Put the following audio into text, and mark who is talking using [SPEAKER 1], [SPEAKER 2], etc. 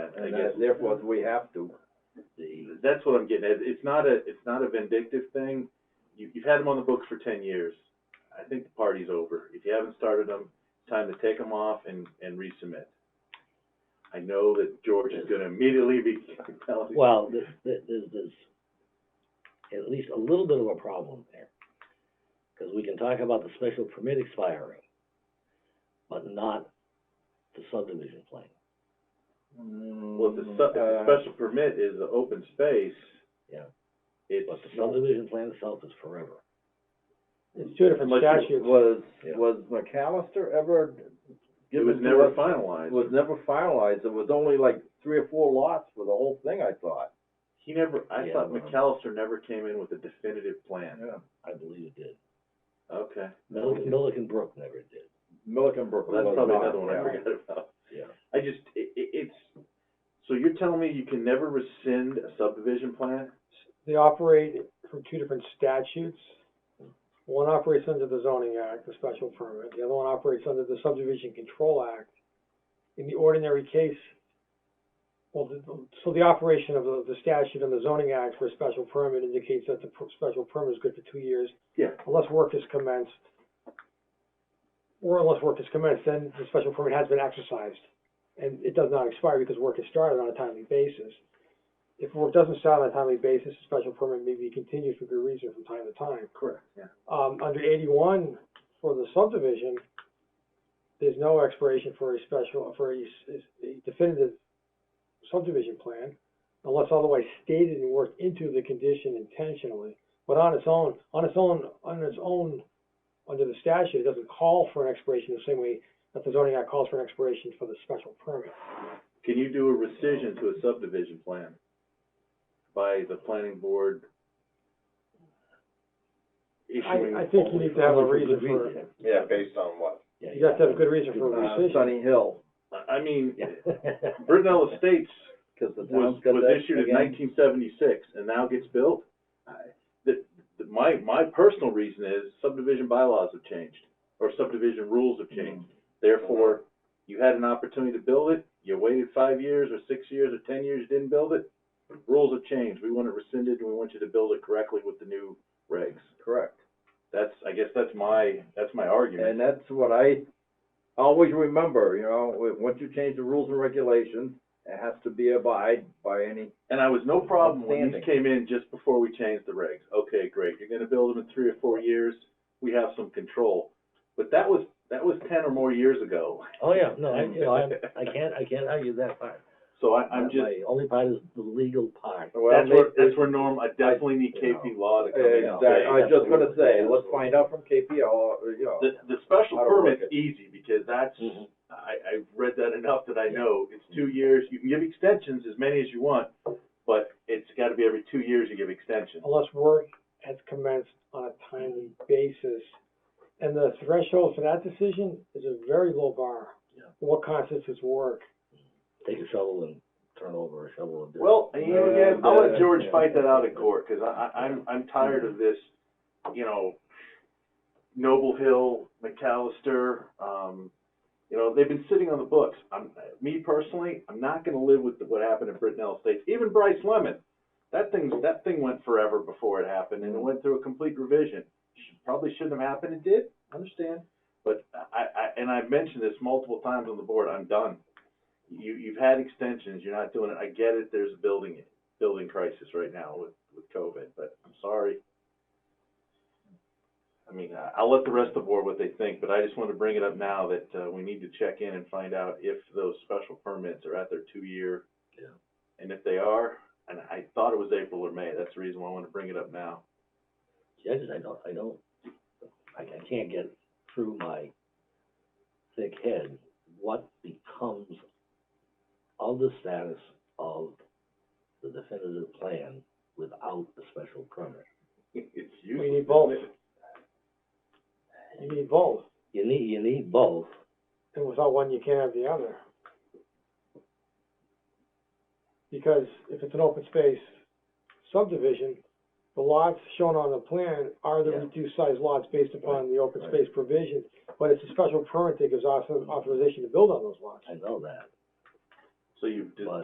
[SPEAKER 1] I
[SPEAKER 2] And
[SPEAKER 1] guess.
[SPEAKER 2] that- therefore, we have to.
[SPEAKER 1] That's what I'm getting at. It's not a, it's not a vindictive thing. You, you've had them on the books for ten years. I think the party's over. If you haven't started them, it's time to take them off and, and resubmit. I know that George is gonna immediately be telling.
[SPEAKER 3] Well, th th there's, there's at least a little bit of a problem there. Because we can talk about the special permit expiring, but not the subdivision plan.
[SPEAKER 1] Well, if the sub, if the
[SPEAKER 2] uh,
[SPEAKER 1] special permit is the open space,
[SPEAKER 3] Yeah.
[SPEAKER 1] it's,
[SPEAKER 3] But the subdivision plan itself is forever.
[SPEAKER 4] It's two different
[SPEAKER 1] Unless you-
[SPEAKER 4] statutes.
[SPEAKER 2] Was,
[SPEAKER 3] Yeah.
[SPEAKER 2] was McAllister ever
[SPEAKER 1] it was
[SPEAKER 2] given to
[SPEAKER 1] never
[SPEAKER 2] us? It
[SPEAKER 1] finalized.
[SPEAKER 2] was never finalized, it was only like three or four lots for the whole thing, I thought.
[SPEAKER 1] He never, I
[SPEAKER 3] Yeah,
[SPEAKER 1] thought
[SPEAKER 3] well.
[SPEAKER 1] McAllister never came in with a definitive plan.
[SPEAKER 3] I believe it did.
[SPEAKER 1] Okay,
[SPEAKER 3] Milliken, Milliken Brook never did.
[SPEAKER 2] Millikenbrook
[SPEAKER 1] well, that's
[SPEAKER 2] was
[SPEAKER 1] probably
[SPEAKER 2] not,
[SPEAKER 1] another one I
[SPEAKER 2] yeah.
[SPEAKER 1] forgot about.
[SPEAKER 3] Yeah.
[SPEAKER 1] I just, i- i- it's, so you're telling me you can never rescind a subdivision plan?
[SPEAKER 4] They operate from two different statutes. One operates under the zoning act, the special permit, the other one operates under the subdivision control act. In the ordinary case, well, the- the- so the operation of the, the statute and the zoning act for a special permit indicates that the per- special permit is good for two years
[SPEAKER 1] Yeah.
[SPEAKER 4] unless work is commenced. Or unless work is commenced, then the special permit has been exercised, and it does not expire because work is started on a timely basis. If work doesn't start on a timely basis, the special permit may be continued for good reason from time to time.
[SPEAKER 1] Correct, yeah.
[SPEAKER 4] Um, under eighty-one, for the subdivision, there's no expiration for a special, for a s- a definitive subdivision plan unless otherwise stated and worked into the condition intentionally. But on its own, on its own, on its own, under the statute, it doesn't call for an expiration the same way that the zoning act calls for an expiration for the special permit.
[SPEAKER 1] Can you do a rescission to a subdivision plan by the planning board issuing?
[SPEAKER 4] I think you need to have a
[SPEAKER 3] Only for good
[SPEAKER 4] reason for,
[SPEAKER 3] reason.
[SPEAKER 5] Yeah, based on what?
[SPEAKER 3] Yeah,
[SPEAKER 4] you have to have a good reason for a
[SPEAKER 2] Uh,
[SPEAKER 4] rescission.
[SPEAKER 2] Sunny Hill,
[SPEAKER 1] I, I mean,
[SPEAKER 3] Yeah.
[SPEAKER 1] Brittenell Estates
[SPEAKER 2] cause the
[SPEAKER 1] was,
[SPEAKER 2] town's got that
[SPEAKER 1] was issued in
[SPEAKER 2] again.
[SPEAKER 1] nineteen seventy-six and now gets built. I- The, the, my, my personal reason is subdivision bylaws have changed, or subdivision rules have changed. Therefore, you had an opportunity to build it, you waited five years or six years or ten years, didn't build it. Rules have changed, we want it rescinded and we want you to build it correctly with the new regs.
[SPEAKER 2] Correct,
[SPEAKER 1] That's, I guess that's my, that's my argument.
[SPEAKER 2] and that's what I always remember, you know, w- once you change the rules and regulations, it has to be abide by any
[SPEAKER 1] And I was no problem when these
[SPEAKER 2] Outstanding.
[SPEAKER 1] came in just before we changed the regs. Okay, great, you're gonna build them in three or four years, we have some control. But that was, that was ten or more years ago,
[SPEAKER 3] Oh, yeah, no, I, you know, I, I can't, I can't argue that part.
[SPEAKER 1] so I, I'm just,
[SPEAKER 3] My only part is the legal part.
[SPEAKER 2] Well,
[SPEAKER 1] that's where,
[SPEAKER 2] they-
[SPEAKER 1] that's where Norm, I definitely need KP Law to come in. and
[SPEAKER 2] Exactly,
[SPEAKER 1] say,
[SPEAKER 2] I was just gonna say, let's find out from KP, all, you know.
[SPEAKER 1] The, the special
[SPEAKER 2] How to work
[SPEAKER 1] permit's
[SPEAKER 2] it.
[SPEAKER 1] easy, because that's,
[SPEAKER 3] Mhm.
[SPEAKER 1] I, I've read that enough that I know, it's two years, you can give extensions as many as you want, but it's gotta be every two years you give extensions.
[SPEAKER 4] unless work has commenced on a timely basis. And the threshold for that decision is a very low bar.
[SPEAKER 3] Yeah.
[SPEAKER 4] What constitutes work?
[SPEAKER 3] Take a shovel and turn over a shovel and do it.
[SPEAKER 1] Well, you know, again,
[SPEAKER 2] Yeah,
[SPEAKER 1] I'll let
[SPEAKER 2] yeah,
[SPEAKER 1] George
[SPEAKER 2] yeah.
[SPEAKER 1] fight that out in court, cause I, I, I'm, I'm tired of this, you know, Noble Hill, McAllister, um, you know, they've been sitting on the books. I'm, me personally, I'm not gonna live with what happened in Brittenell Estates, even Bryce Lemon. That thing, that thing went forever before it happened, and it went through a complete revision. Should- Probably shouldn't have happened, it did, I understand, but I, I, and I've mentioned this multiple times on the board, I'm done. You, you've had extensions, you're not doing it, I get it, there's a building, building crisis right now with, with COVID, but I'm sorry. I mean, I- I'll let the rest of the board what they think, but I just want to bring it up now that, uh, we need to check in and find out if those special permits are at their two-year.
[SPEAKER 3] Yeah.
[SPEAKER 1] And if they are, and I thought it was April or May, that's the reason why I want to bring it up now.
[SPEAKER 3] judges, I don't, I don't, I, I can't get through my thick head what becomes of the status of the definitive plan without the special permit.
[SPEAKER 1] It's
[SPEAKER 4] We
[SPEAKER 1] useless.
[SPEAKER 4] need both.
[SPEAKER 1] isn't it?
[SPEAKER 4] You need both,
[SPEAKER 3] You need, you need both,
[SPEAKER 4] and without one, you can't have the other. Because if it's an open space subdivision, the lots shown on the plan are the
[SPEAKER 3] Yeah.
[SPEAKER 4] reduced size lots based upon the open
[SPEAKER 3] Right.
[SPEAKER 4] space provision, but it's a special permit that gives author- authorization to build on those lots.
[SPEAKER 3] I know that.
[SPEAKER 1] So you've just
[SPEAKER 3] But-